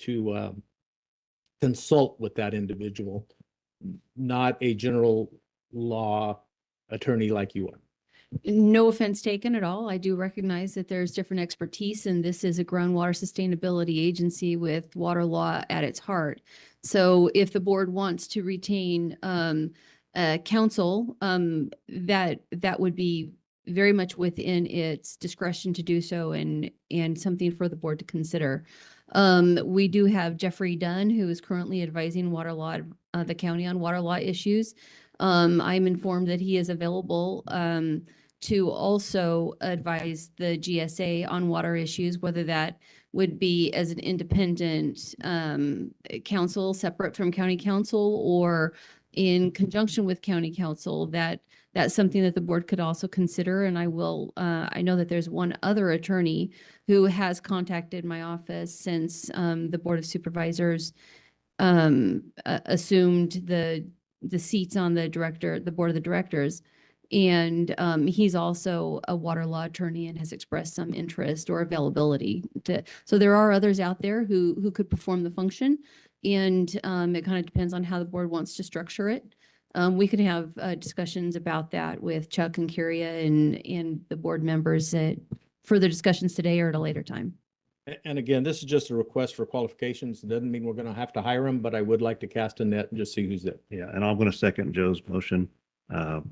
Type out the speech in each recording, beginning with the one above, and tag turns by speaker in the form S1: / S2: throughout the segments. S1: to um, consult with that individual, not a general law attorney like you are.
S2: No offense taken at all. I do recognize that there's different expertise and this is a groundwater sustainability agency with water law at its heart. So if the board wants to retain um uh counsel, um that that would be very much within its discretion to do so and and something for the board to consider. Um, we do have Jeffrey Dunn, who is currently advising water law, uh, the county on water law issues. Um, I'm informed that he is available um to also advise the GSA on water issues, whether that would be as an independent um, council separate from county council or in conjunction with county council, that, that's something that the board could also consider. And I will, uh, I know that there's one other attorney who has contacted my office since um, the Board of Supervisors um, a- assumed the, the seats on the director, the Board of the Directors. And um, he's also a water law attorney and has expressed some interest or availability to, so there are others out there who, who could perform the function. And um, it kind of depends on how the board wants to structure it. Um, we could have uh, discussions about that with Chuck and Curia and, and the board members at further discussions today or at a later time.
S1: A- And again, this is just a request for qualifications. It Doesn't mean we're going to have to hire them, but I would like to cast a net and just see who's there.
S3: Yeah, and I'm going to second Joe's motion. Uh,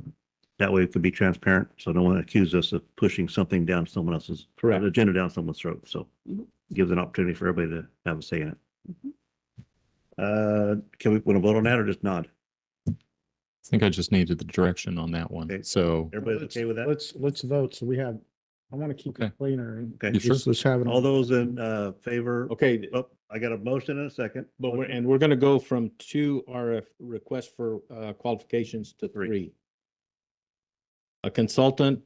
S3: That way it could be transparent, so no one accuses us of pushing something down someone else's,
S1: Correct.
S3: agenda down someone's throat. So
S2: Mhm.
S3: gives an opportunity for everybody to have a say in it.
S2: Mhm.
S3: Uh, Can we, want to vote on that or just nod?
S4: I think I just needed the direction on that
S3: Okay.
S4: one. So,
S3: Everybody's
S5: Let's-
S3: okay with that?
S5: Let's, let's vote. So we have, I want to keep it
S4: Okay.
S5: cleaner and
S3: Okay.
S4: You sure?
S5: just, let's have it.
S3: All
S5: all.
S3: those in uh, favor?
S1: Okay,
S3: Oh, I got a motion and a second.
S1: but we're, and we're going to go from two RF requests for uh, qualifications to
S3: Three.
S1: three. A consultant,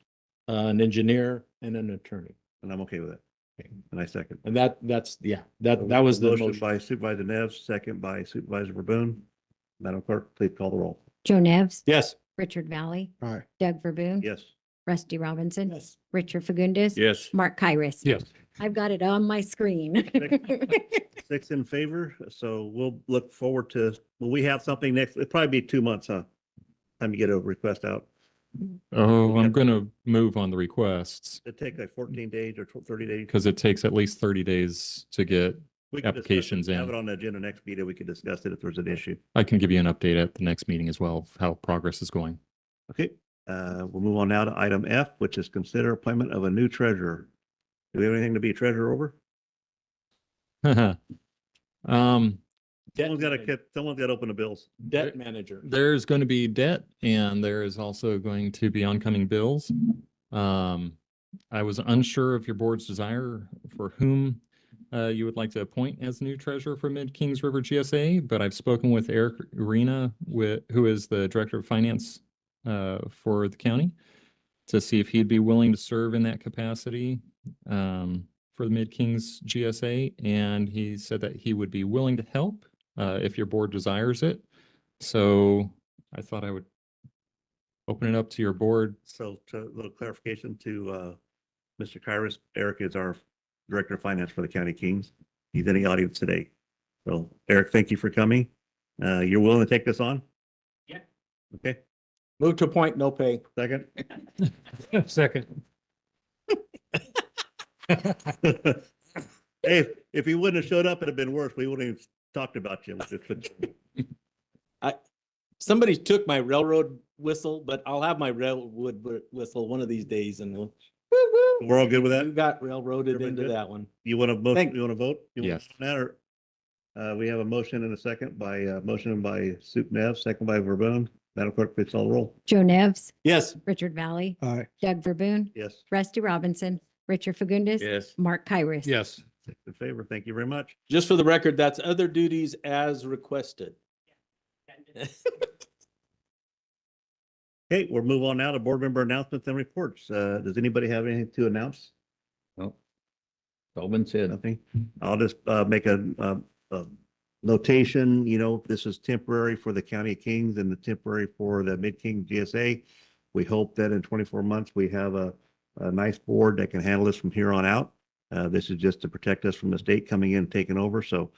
S1: uh, an engineer, and an attorney.
S3: And I'm okay with it.
S1: Okay.
S3: And I second.
S1: And that, that's, yeah, that, that was the motion.
S3: By Supervisor Neves, second by Supervisor Verboen. Madam Clerk, please call the roll.
S6: Joe Nevs,
S1: Yes.
S6: Richard Valley,
S5: right.
S6: Doug Verboon.
S3: Yes.
S6: Rusty Robinson.
S1: Yes.
S6: Richard Fagundes.
S4: yes.
S6: Mark Kyris.
S4: Yes.
S6: I've got it on my screen.
S3: Six in favor, so we'll look forward to, will we have something next, it'll probably be two months, huh? Time to get a request out.
S4: Oh,
S3: Okay.
S4: I'm going to move on the requests
S3: It'd take like fourteen days or tw- thirty days.
S4: because it takes at least 30 days to get,
S3: We can discuss it.
S4: applications in.
S3: Have it on the agenda next meeting. We can discuss it if there's an issue.
S4: I can give you an update at the next meeting as well, of how progress is going.
S3: Okay, uh, we'll move on now to item F, which is consider appointment of a new treasurer. Do we have anything to be treasurer over?
S4: Um,
S3: Someone's got to, someone's got to open the bills.
S1: Debt manager.
S4: there's going to be debt and there is also going to be oncoming bills. Um, I was unsure of your board's desire for whom uh, you would like to appoint as new treasurer for Mid Kings River GSA, but I've spoken with Eric Arena, with, who is the director of finance uh, for the county, to see if he'd be willing to serve in that capacity um, for the Mid Kings GSA. And he said that he would be willing to help uh, if your board desires it. So I thought I would open it up to your board.
S3: So to a little clarification to, uh, Mr. Kyrus, Eric is our Director of Finance for the County Kings. He's in the audience today. So Eric, thank you for coming. Uh, you're willing to take this on?
S1: Yeah.
S3: Okay,
S1: Move to appoint, no pay.
S3: second.
S4: Second.
S3: Hey, if- if he wouldn't have showed up, it'd have been worse. We wouldn't have talked about you.
S1: Somebody took my railroad whistle, but I'll have my railwood whi- whistle one of these days and we'll.
S3: We're all good with
S1: You
S3: that?
S1: got railroaded
S3: Everybody
S1: into
S3: good?
S1: that one.
S3: You want to vote?
S1: Thank-
S3: You want to vote? You wanna
S4: Yes.
S3: vote on That or, uh, we have a motion and a second by, uh, motion by Soup Nev, second by Verboen. Madam Clerk, please call the roll.
S6: Joe Nevs,
S1: Yes.
S6: Richard Valley,
S5: All right.
S6: Doug Verboon,
S3: Yes.
S6: Rusty Robinson, Richard Fagundes.
S1: Yes.
S6: Mark Kyris.
S4: Yes.
S3: Six in favor. Thank you very much.
S1: Just for the record, that's other duties as requested.
S3: Okay, we'll move on now to board member announcements and reports. Uh, does anybody have anything to announce?
S1: Tobin said.
S3: Nothing. I'll just, uh, make a, uh, a notation, you know, this is temporary for the County of Kings and the temporary for the Mid-King GSA. We hope that in twenty-four months, we have a, a nice board that can handle this from here on out. Uh, this is just to protect us from the state coming in, and taking over. So